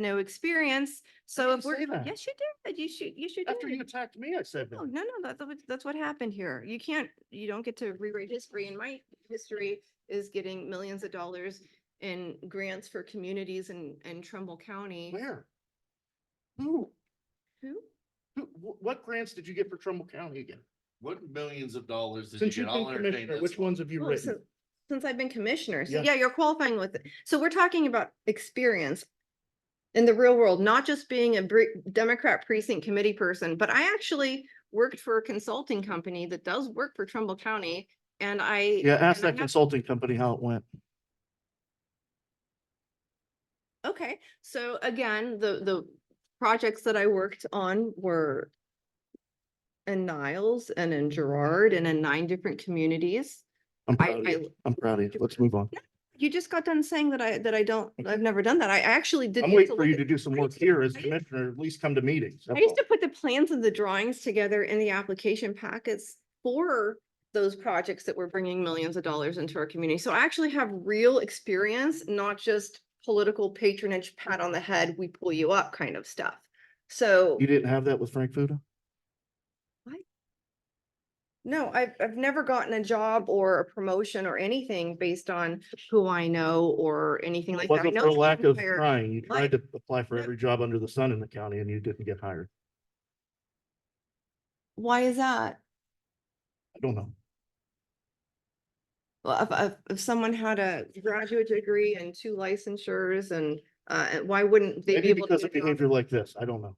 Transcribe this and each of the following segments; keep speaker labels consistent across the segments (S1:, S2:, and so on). S1: no experience. So
S2: didn't
S1: if we're,
S2: say that.
S1: yes, you did. You should, you should. do
S2: After
S1: it.
S2: you attacked me, I said
S1: Oh, No,
S2: that.
S1: no, no, that's, what- that's what happened here. You can't, you don't get to rewrite history and my history is getting millions of dollars in grants for communities in, in Trumbull County.
S2: Where? Who?
S1: Who?
S2: Who, wh- what grants did you get for Trumbull County again?
S3: What millions of dollars did
S2: Since
S3: you
S2: you've
S3: get? I'll
S2: been
S3: entertain
S2: commissioner,
S3: this
S2: which
S3: one.
S2: ones have you
S1: Well, Oh, so-
S2: written?
S1: Since I've been commissioner, so
S2: Yeah.
S1: yeah, you're qualifying with it. So we're talking about experience in the real world, not just being a bre- Democrat precinct committee person, but I actually worked for a consulting company that does work for Trumbull County and I.
S2: Yeah, ask
S1: and I have-
S2: that consulting company how it went.
S1: Okay, so again, the, the projects that I worked on were in Niles and in Gerard and in nine different communities.
S2: I'm
S1: I-
S2: proud of
S1: I-
S2: you. I'm proud of you. Let's move on.
S1: You just got done saying that I, that I don't, I've never done that. I I actually did.
S2: I'm
S1: used
S2: waiting for
S1: look
S2: you
S1: at-
S2: to do some
S1: I
S2: work
S1: used to-
S2: here as
S1: I used-
S2: commissioner, at least come to meetings.
S1: I
S2: that's
S1: used
S2: all.
S1: to put the plans and the drawings together in the application packets for those projects that were bringing millions of dollars into our community. So I actually have real experience, not just political patronage, pat on the head, we pull you up kind of stuff. So.
S2: You didn't have that with Frank Fuda?
S1: No, I've, I've never gotten a job or a promotion or anything based on who I know or anything like
S2: It
S1: that. I
S2: wasn't
S1: know
S2: for
S1: it's
S2: lack of
S1: unfair.
S2: trying. You tried to apply for
S1: Yep.
S2: every job under the sun in the county and you didn't get hired.
S1: Why is that?
S2: I don't know.
S1: Well, if, if, if someone had a graduate degree and two licensures and, uh, and why wouldn't they be
S2: Maybe
S1: able to?
S2: because
S1: do a
S2: of
S1: job?
S2: behavior like this. I don't know.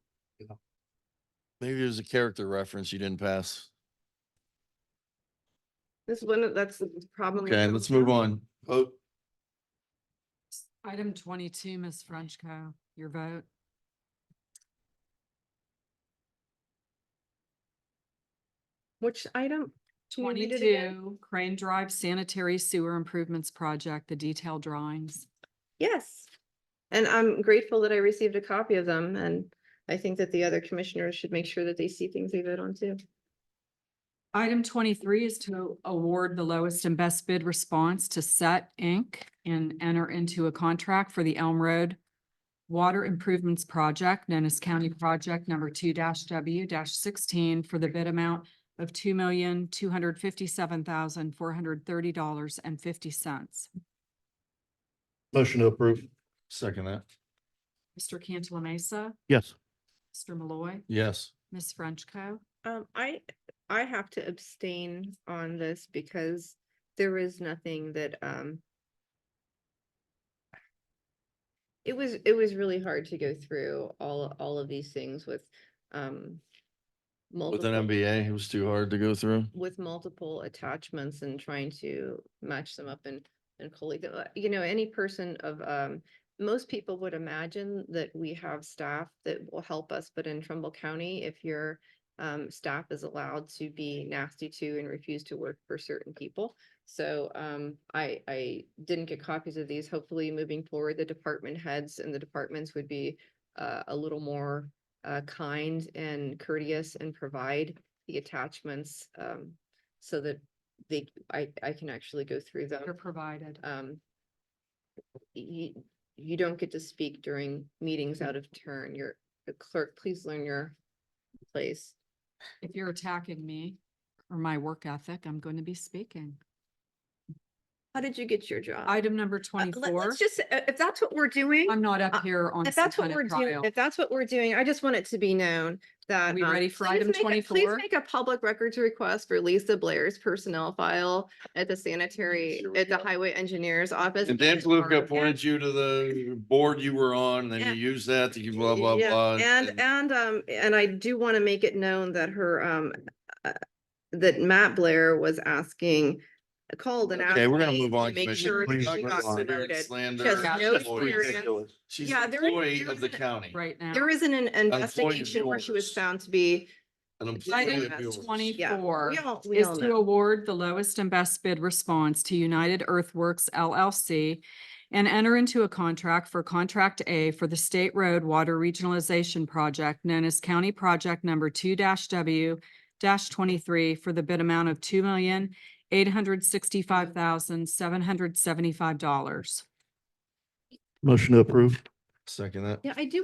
S3: Maybe there's a character reference you didn't pass.
S1: This one, that's the problem. with
S3: Okay,
S1: some
S3: let's move
S1: jobs.
S3: on. Oh, Vote.
S4: Item twenty-two, Ms. Frenchco, your vote.
S1: Which item? Can you read it again?
S4: Twenty-two, Crane Drive Sanitary Sewer Improvements Project, the detailed drawings.
S1: Yes. And I'm grateful that I received a copy of them and I think that the other commissioners should make sure that they see things they vote on too.
S4: Item twenty-three is to award the lowest and best bid response to Set Inc. and enter into a contract for the Elm Road Water Improvements Project, known as County Project Number two W sixteen, for the bid amount of two million, two hundred fifty-seven thousand, four hundred thirty dollars and fifty cents.
S2: Motion to approve.
S3: Second that.
S4: Mr. Cantala Mesa,
S2: Yes.
S4: Mr. Malloy,
S3: Yes.
S4: Ms. Frenchco.
S1: Um, I, I have to abstain on this because there is nothing that, um. It was, it was really hard to go through all, all of these things with, um.
S3: With
S1: multiple
S3: an MBA, it was too hard to go through.
S1: With multiple attachments and trying to match them up and, and collate, them. Uh, you know, any person of, um. Most people would imagine that we have staff that will help us, but in Trumbull County, if you're um, staff is allowed to be nasty to and refuse to work for certain people. So, um, I, I didn't get copies of these. Hopefully, moving forward, the department heads and the departments would be uh, a little more uh, kind and courteous and provide the attachments, um, so that they, I, I can actually go through them
S4: You're provided.
S1: um, you, you don't get to speak during meetings out of turn. You're the clerk, please learn your place.
S4: If you're attacking me or my work ethic, I'm going to be speaking.
S1: How did you get your job?
S4: Item
S1: Uh,
S4: number
S1: let-
S4: twenty-four,
S1: Let's just, uh, if that's what we're doing,
S4: I'm not
S1: uh,
S4: up here on
S1: if
S4: some
S1: that's what
S4: kind
S1: we're
S4: of
S1: doing,
S4: trial.
S1: if that's what we're doing, I just want it to be known that.
S4: We
S1: um,
S4: ready for
S1: please
S4: item
S1: make a-
S4: 24?
S1: Please make a public records request for Lisa Blair's personnel file at the sanitary,
S3: Here we
S1: at the
S3: go.
S1: highway engineer's office.
S3: And Dan Fluka pointed you to the board you were on, and then
S1: Yeah.
S3: you used that to blah, blah,
S1: Yeah,
S3: blah.
S1: And, and, um, and I do want to make it known that her, um, uh, that Matt Blair was asking, called and asked.
S3: Okay, we're gonna
S1: me
S3: move on.
S1: to Make
S3: Commissioner.
S1: sure that
S2: Please
S1: she
S3: Talking
S1: got
S2: move on.
S3: about
S1: promoted.
S3: slander,
S1: She has no
S3: employees.
S1: experience.
S3: She's
S1: Yeah,
S3: an
S1: there is-
S3: employee
S1: there
S3: of the
S1: isn't-
S3: county.
S4: Right now.
S1: There isn't an
S3: employees
S1: investigation where she was
S3: yours.
S1: found to be.
S3: An employee of
S1: Item
S3: yours.
S4: Item twenty-four
S1: We all, we
S4: is
S1: all
S4: to
S1: know.
S4: award the lowest and best bid response to United Earthworks LLC and enter into a contract for Contract A for the State Road Water Regionalization Project known as County Project Number two W twenty-three for the bid amount of two million, eight hundred sixty-five thousand, seven hundred seventy-five dollars.
S2: Motion to approve.
S5: Second that.
S3: Yeah, I do